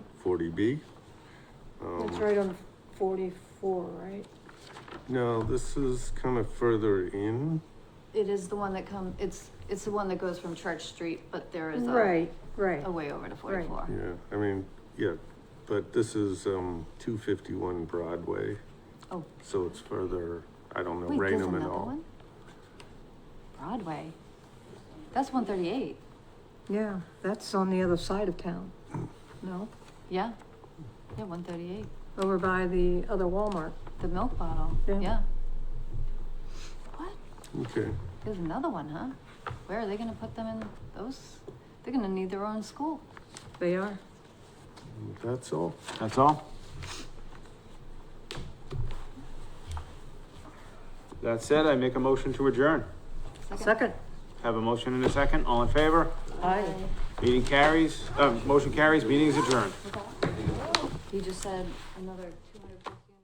forty B. Um, That's right on forty-four, right? No, this is kind of further in. It is the one that come, it's, it's the one that goes from Church Street, but there is Oh. a. Right, right. A way over to forty-four. Yeah, I mean, yeah, but this is, um, two fifty-one Broadway, Oh, so it's further, I don't know, wait, there's Raynham and another all. one? Broadway? That's one thirty-eight, Yeah, that's on the other side of town. No, yeah? Yeah, one thirty-eight, over by the other Walmart. the milk bottle, Yeah. yeah. What? Okay, There's another one, huh? Where are they gonna put them in those? They're gonna need their own school. They are. that's all. That's all? That said, I make a motion to adjourn. Second. Have a motion in a second, all in favor? Aye. Meeting carries, uh, motion carries, meeting is adjourned. You just said another two hundred fifty.